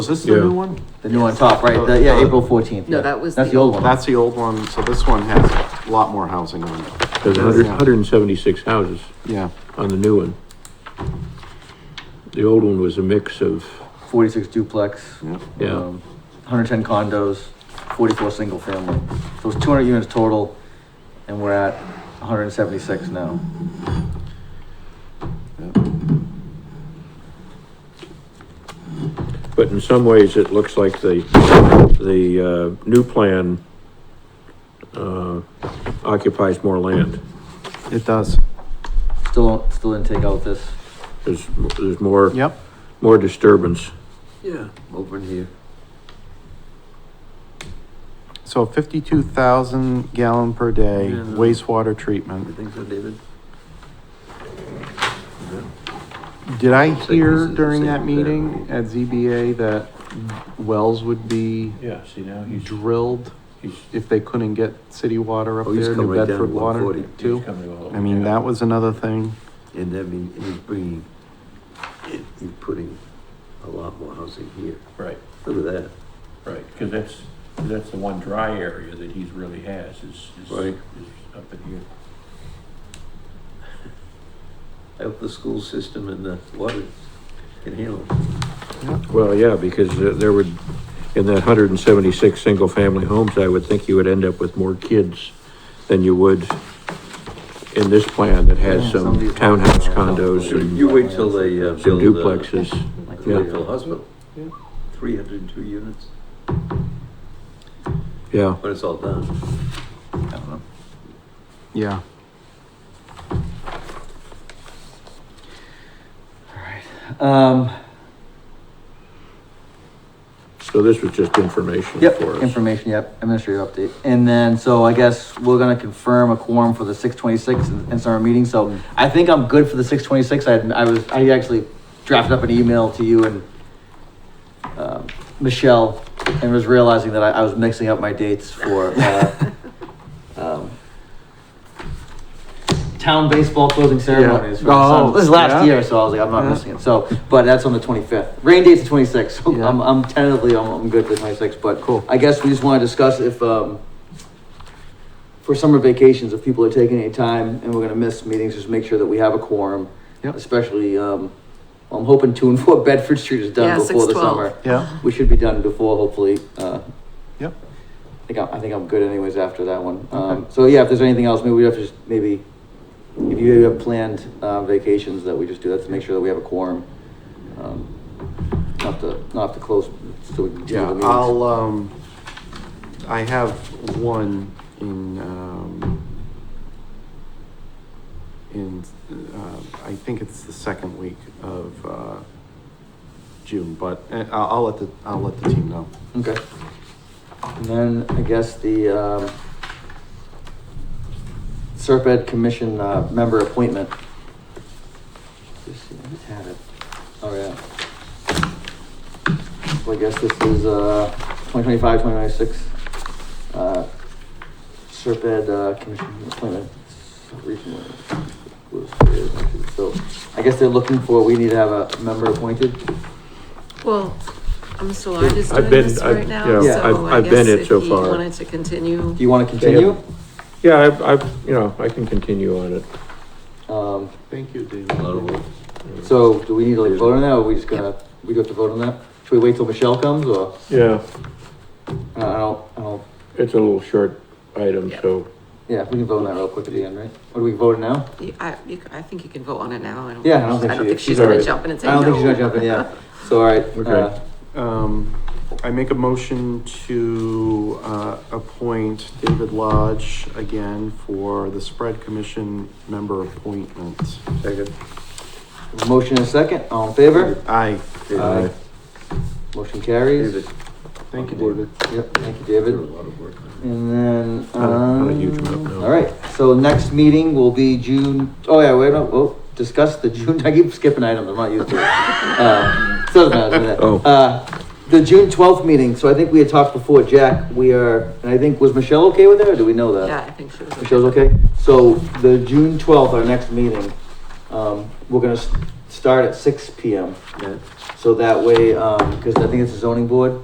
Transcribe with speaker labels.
Speaker 1: Is this the new
Speaker 2: Yeah.
Speaker 1: one?
Speaker 3: The new on top, right? The- yeah, April fourteenth.
Speaker 4: No, that was
Speaker 3: That's
Speaker 4: the
Speaker 3: the old one.
Speaker 4: old
Speaker 1: That's the old one, so this one has a lot more housing on it.
Speaker 2: There's hundred, hundred and seventy-six houses
Speaker 1: Yeah,
Speaker 2: on the new one. The old one was a mix of,
Speaker 3: Forty-six duplex.
Speaker 1: yeah.
Speaker 2: Yeah.
Speaker 3: Um, hundred ten condos, forty-four single family. So it's two hundred units total, and we're at one hundred and seventy-six now.
Speaker 2: but in some ways, it looks like the, the, uh, new plan, uh, occupies more land.
Speaker 1: It does.
Speaker 3: Still, still didn't take out this.
Speaker 2: There's, there's more,
Speaker 1: Yep.
Speaker 2: more disturbance.
Speaker 1: Yeah.
Speaker 5: over here.
Speaker 1: So fifty-two thousand gallon per day
Speaker 5: Yeah, no.
Speaker 1: wastewater
Speaker 5: You
Speaker 1: treatment.
Speaker 5: think so, David?
Speaker 1: Did I
Speaker 5: like this
Speaker 1: hear
Speaker 5: is the
Speaker 1: during that
Speaker 5: same
Speaker 1: meeting at ZBA that wells would be
Speaker 2: Yeah, see now
Speaker 1: drilled
Speaker 2: he's,
Speaker 1: if they couldn't get city water up
Speaker 5: Oh, he's
Speaker 1: there,
Speaker 5: come
Speaker 1: New
Speaker 5: right down to
Speaker 1: Bedford water
Speaker 5: 140.
Speaker 1: too? I mean, that was another thing.
Speaker 5: And I mean, he's bringing, he's putting a lot more housing here.
Speaker 6: Right,
Speaker 5: Look at that.
Speaker 6: right, because that's, 'cause that's the one dry area that he's really has is, is,
Speaker 5: Right.
Speaker 6: is up in here.
Speaker 5: I hope the school system and the water can handle it.
Speaker 2: Well, yeah, because uh, there would, in that hundred and seventy-six single-family homes, I would think you would end up with more kids than you would in this plan that has
Speaker 3: Yeah,
Speaker 2: some
Speaker 3: somebody's-
Speaker 2: townhouse condos
Speaker 5: You-
Speaker 2: and
Speaker 5: You wait till they uh,
Speaker 2: some
Speaker 5: build. uh,
Speaker 2: duplexes.
Speaker 3: Like
Speaker 2: Yeah.
Speaker 5: Lakeville Hospital.
Speaker 1: Yeah.
Speaker 5: Three hundred and two units,
Speaker 2: Yeah,
Speaker 5: when it's all done.
Speaker 3: I don't know.
Speaker 1: Yeah.
Speaker 3: Um,
Speaker 2: so this was just information
Speaker 3: yep,
Speaker 2: for us.
Speaker 3: information, yep, administrative update. And then, so I guess we're gonna confirm a quorum for the six twenty-six and summer meeting,
Speaker 1: Mm.
Speaker 3: so I think I'm good for the six twenty-six. I, had- I was, I actually drafted up an email to you and, um, Michelle, and was realizing that I, I was mixing up my dates for, uh, um, town baseball closing ceremonies for the Suns.
Speaker 1: Oh,
Speaker 3: This is last
Speaker 1: yeah.
Speaker 3: year, so I was like, I'm not
Speaker 1: Yeah.
Speaker 3: missing it. So, but that's on the twenty-fifth. Rain date's the twenty-sixth, so
Speaker 1: Yeah.
Speaker 3: I'm, I'm tentatively, I'm, I'm good for the twenty-sixth, but
Speaker 1: Cool.
Speaker 3: I guess we just wanna discuss if, um, for summer vacations, if people are taking any time and we're gonna miss meetings, just make sure that we have a quorum.
Speaker 1: Yep.
Speaker 3: Especially, um, I'm hoping two and four Bedford Street is
Speaker 4: Yeah,
Speaker 3: done before the
Speaker 4: 612.
Speaker 3: summer.
Speaker 1: Yeah.
Speaker 3: We should be done before, hopefully, uh,
Speaker 1: Yep.
Speaker 3: I think, I'm- I think I'm good anyways after that one. Um, so yeah, if there's anything else, maybe we have to just, maybe, if you have planned, uh, vacations that we just do, that to make sure that we have a quorum. Um, Not to, not have to close, so we can continue
Speaker 1: Yeah,
Speaker 3: the meetings.
Speaker 1: I'll, um, I have one in, um, in, uh, I think it's the second week of, uh, June, but uh, I'll, I'll let the, I'll let the team know.
Speaker 3: Okay. And then I guess the, um, Serp Ed Commission, uh, member appointment. Just see, I had it. Oh, yeah. So I guess this is, uh, 2025, 2026, uh, Serp Ed, uh, Commission appointment. Regional- So I guess they're looking for, we need to have a member appointed.
Speaker 4: Well, I'm still, I'm just
Speaker 2: I've
Speaker 4: doing
Speaker 2: been-
Speaker 4: this
Speaker 2: I've-
Speaker 4: right now,
Speaker 2: yeah,
Speaker 3: I've-
Speaker 4: so I
Speaker 2: I've been
Speaker 4: guess
Speaker 2: it
Speaker 4: if
Speaker 2: so
Speaker 4: he
Speaker 2: far.
Speaker 4: wanted to continue.
Speaker 3: Do you want to continue?
Speaker 2: Yeah, I, I, you know, I can continue on it.
Speaker 3: Um,
Speaker 1: Thank you, David.
Speaker 5: A lot of work.
Speaker 3: So do we need to like vote on that, or are we just gonna, we do have to vote on that? Should we wait till Michelle comes, or,
Speaker 2: Yeah,
Speaker 3: I don't, I don't,
Speaker 2: it's a little short item, so,
Speaker 3: yeah, we can vote on that real quick at the end, right? Or do we vote now?
Speaker 4: You- I, you, c- I think you can vote on it now. I don't.
Speaker 3: Yeah, I don't think she- she's
Speaker 4: she's gonna
Speaker 2: alright.
Speaker 4: jump in and
Speaker 3: I
Speaker 4: say no.
Speaker 3: don't think she's gonna jump in, yeah, so, all right. uh,
Speaker 2: Okay.
Speaker 1: Um, I make a motion to, uh, appoint David Lodge again for the spread commission member appointment.
Speaker 5: Second.
Speaker 3: Motion and a second, all in favor?
Speaker 1: Aye.
Speaker 3: Aye. Motion carries.
Speaker 5: David,
Speaker 1: Thank you, David.
Speaker 3: Yep, thank you,
Speaker 5: did a
Speaker 3: David.
Speaker 5: lot of work on it.
Speaker 3: And then,
Speaker 2: Not a- Oh, not a huge
Speaker 3: um,
Speaker 2: amount, no.
Speaker 3: all right, so next meeting will be June, oh yeah, wait, no, oh, discuss the June, I keep skipping items, I'm not used to it. Uh, so doesn't matter, doesn't
Speaker 2: Oh.
Speaker 3: matter. Uh, the June twelfth meeting, so I think we had talked before, Jack, we are, and I think, was Michelle okay with it, or do we know that?
Speaker 4: Yeah, I think she was.
Speaker 3: Michelle's okay? So the June twelfth, our next meeting, um, we're gonna s- start at six P M.
Speaker 5: Yeah.
Speaker 3: So that way, um, cause I think it's a zoning board,